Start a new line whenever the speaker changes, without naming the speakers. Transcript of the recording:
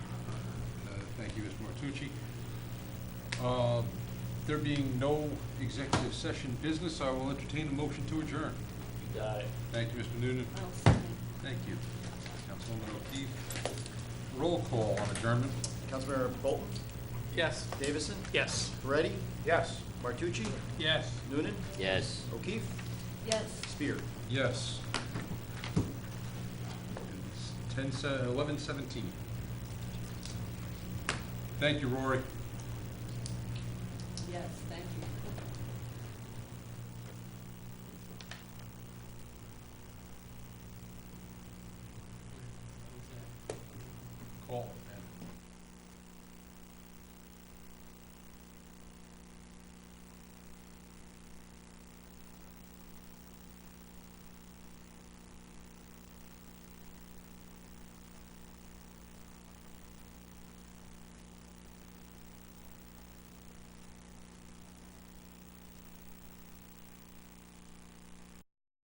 Uh, Thank you, Ms. Martucci. Uh, There being no executive session business, I will entertain a motion to adjourn.
You got it.
Thank you, Mr. Noonan.
I'll second.
Thank you. Councilwoman O'Keefe. Roll call on adjournment.
Councilmember Bolton,
Yes.
Davison,
Yes.
Moretti,
Yes.
Martucci,
Yes.
Noonan,
Yes.
O'Keefe,
Yes.
Spear.
Yes. Ten, eleven seventeen. Thank you, Rory.